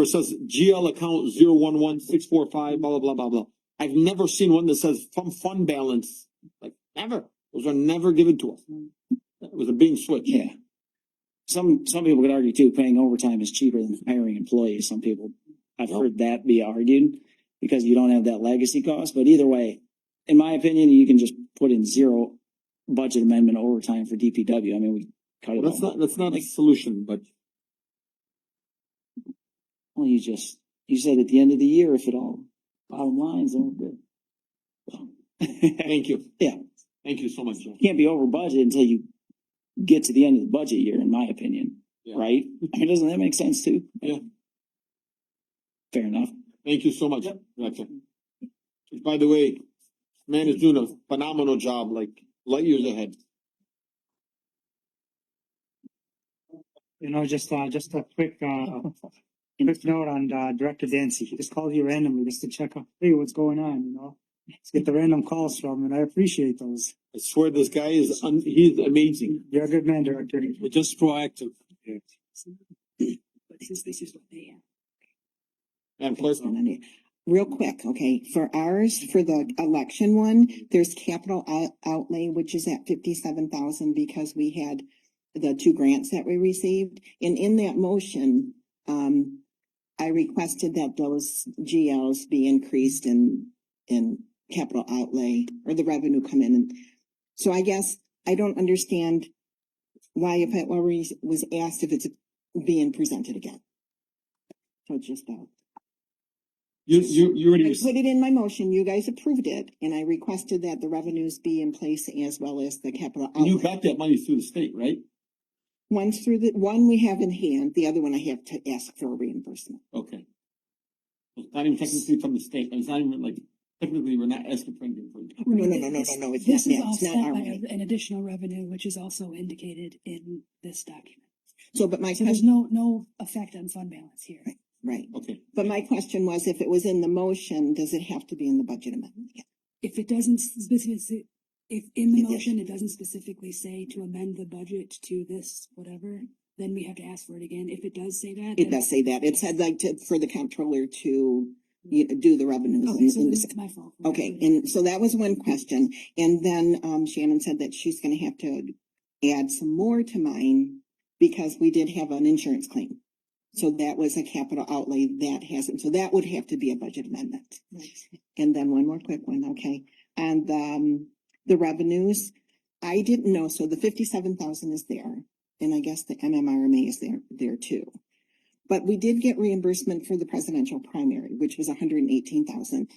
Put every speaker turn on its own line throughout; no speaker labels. where it says GL account zero one one six four five, blah, blah, blah, blah, blah. I've never seen one that says from fund balance, like never. Those are never given to us. It was a being switch.
Yeah. Some, some people could argue too, paying overtime is cheaper than hiring employees. Some people, I've heard that be argued because you don't have that legacy cost, but either way, in my opinion, you can just put in zero budget amendment overtime for DPW. I mean, we cut it
Well, That's
all.
not, that's not a solution, but
Well, you just, you said at the end of the year, if it all, bottom lines, all good.
thank you.
Yeah.
Thank you so much. Joe.
can't be over budget until you get to the end of the budget year, in my opinion,
Yeah.
right? I mean, doesn't that make sense too?
Yeah.
Fair enough.
Thank you so much.
Yep.
Director. By the way, man is doing a phenomenal job, like light years ahead.
You know, just uh, just a quick uh, quick note on uh, Director Dancy. He just called you randomly just to check up, hey, what's going on? You know, just get the random calls from, him, and I appreciate those.
I swear this guy is, un- he's amazing.
You're a good man, Director.
Just proactive.
This, this is what they uh,
And plus,
have. Real quick, okay, for ours, for the election one, there's capital out- outlay, which is at fifty-seven thousand because we had the two grants that we received. And in that motion, um, I requested that those GLs be increased in, in capital outlay or the revenue come in. So I guess I don't understand why if it were, was asked if it's being presented again. So it's just that.
you, you, you already.
I put it in my motion, you guys approved it, and I requested that the revenues be in place as well as the capital.
And you
outlay.
got that money through the state, right?
One's through the, one we have in hand, the other one I have to ask for reimbursement.
Okay. It's not even technically from the state, it's not even like, technically, we're not asking for anything from.
Oh, No, no, no, no, no, no, it's
This
not-
is
no, it's not
offset
our
by
money.
an additional revenue, which is also indicated in this document.
So, but my
So there's
question,
no, no effect on fund balance here.
right,
Okay,
but my question was, if it was in the motion, does it have to be in the budget amendment? Yeah.
If it doesn't specifically, if in the
Yeah.
motion, it doesn't specifically say to amend the budget to this, whatever, then we have to ask for it again. If it does say that.
It
then-
does say that, it said like to, for the comptroller to, you know, do the revenues.
Okay,
in-
so
in the
then
se-
it's my fault.
Okay, and so that was one question, and then um Shannon said that she's gonna have to add some more to mine. Because we did have an insurance claim, so that was a capital outlay that hasn't, so that would have to be a budget amendment. And then one more quick one, okay, and um the revenues, I didn't know, so the fifty-seven thousand is there. And I guess the MMRMA is there, there too. But we did get reimbursement for the presidential primary, which was hundred and eighteen thousand.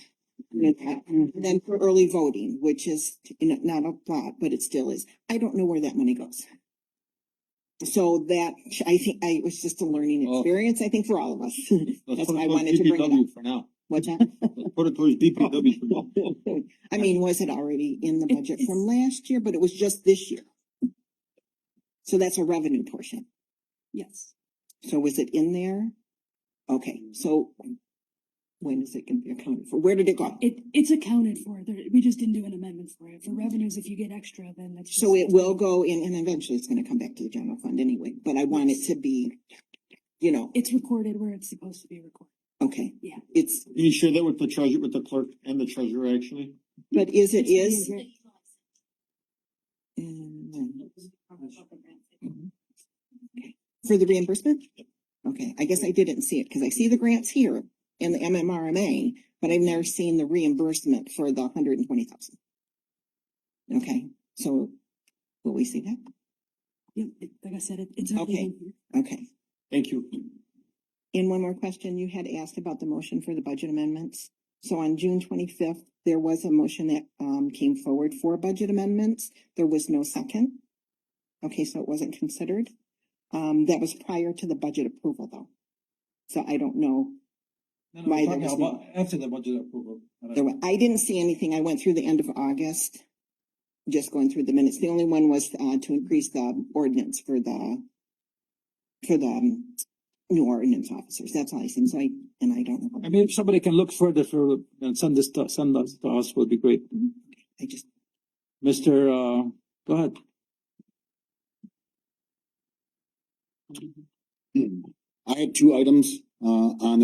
And then for early voting, which is, you know, not a lot, but it still is. I don't know where that money goes. So that, I think, I it was just a learning
Oh.
experience, I think for all of us.
let's
That's
put it
why I
towards
wanted to bring it up.
DPW for now,
What's that?
let's put it towards DPW for now.
I mean, was it already in the budget from last year, but it was just this year? So that's a revenue portion.
Yes,
So was it in there? Okay, so when is it gonna be accounted for? Where did it go?
it, it's accounted for. There, we just didn't do an amendment for it. For revenues, if you get extra, then that's.
So
just-
it will go in, and eventually it's gonna come back to the general fund anyway, but I want it to be, you know,
It's recorded where it's supposed to be recorded.
okay.
Yeah.
It's,
Can you share that with the treasurer, with the clerk and the treasurer, actually?
but is it
It's being
is?
re-
Mm, For the reimbursement? Okay, I guess I didn't see it, cause I see the grants here in the MMRMA, but I've never seen the reimbursement for the hundred and twenty thousand. Okay, so will we see that?
Yep, it- like I said, it- it's.
Okay.
included.
Okay.
Thank you.
And one more question, you had asked about the motion for the budget amendments. So on June twenty-fifth, there was a motion that um came forward for budget amendments. There was no second. Okay, so it wasn't considered. Um, that was prior to the budget approval though. So I don't know.
No,
Why
no, we're
there
talking
was
about after the budget approval.
There were, I didn't see anything. I went through the end of August. Just going through the minutes. The only one was uh to increase the ordinance for the. For the um, new ordinance officers. That's all I seen. So I, and I don't know.
I mean, if somebody can look further for, and send this, to- send us to us would be great.
I just.
Mister, uh, go ahead.
I have two items.
uh, on